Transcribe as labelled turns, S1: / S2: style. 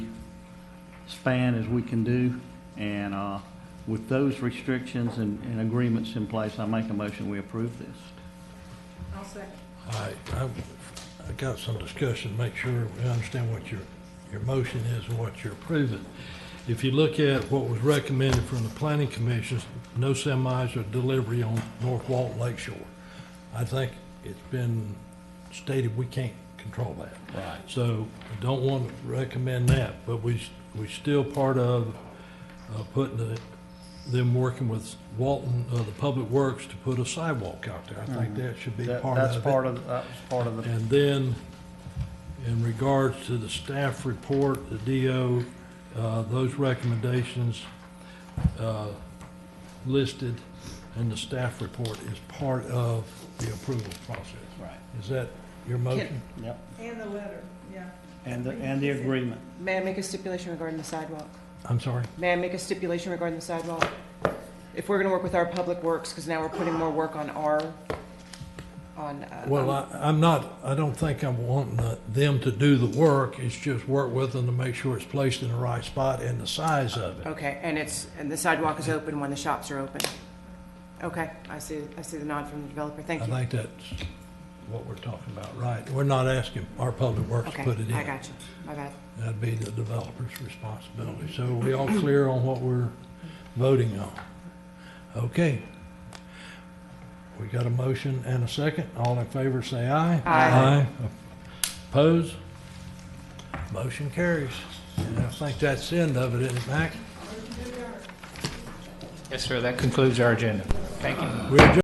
S1: span as we can do. And uh, with those restrictions and and agreements in place, I make a motion, we approve this.
S2: I'll second.
S3: I, I, I got some discussion, make sure we understand what your, your motion is and what you're approving. If you look at what was recommended from the planning commissions, no semis or delivery on North Walton Lake Shore. I think it's been stated we can't control that. Right. So I don't want to recommend that, but we, s- we still part of, uh, putting the, them working with Walton, uh, the Public Works to put a sidewalk out there. I think that should be
S1: Mm-hmm. That-
S3: part of it.
S1: That's part of, that was part of the,
S3: And then, in regards to the staff report, the DO, uh, those recommendations uh, listed in the staff report is part of the approval process.
S1: right.
S3: Is that your motion?
S1: Yep,
S2: And the letter, yeah.
S1: and the, and the agreement.
S4: May I make a stipulation regarding the sidewalk?
S3: I'm sorry?
S4: May I make a stipulation regarding the sidewalk? If we're gonna work with our public works, because now we're putting more work on our, on, uh,
S3: Well, I, I'm not, I don't think I'm wanting uh, them to do the work. It's just work with them to make sure it's placed in the right spot and the size of it.
S4: okay, and it's, and the sidewalk is open when the shops are open. Okay, I see, I see the nod from the developer, thank
S3: I
S4: you.
S3: think that's what we're talking about, right? We're not asking our public works to
S4: Okay,
S3: put it in.
S4: I got you, my bad.
S3: That'd be the developer's responsibility. So are we all clear on what we're voting on? Okay. We got a motion and a second. All in favor, say aye.
S4: Aye.
S3: Oppose? Motion carries. And I think that's the end of it, isn't it, Mac?
S5: Yes, sir, that concludes our agenda. Thank you.
S3: We're adjourned.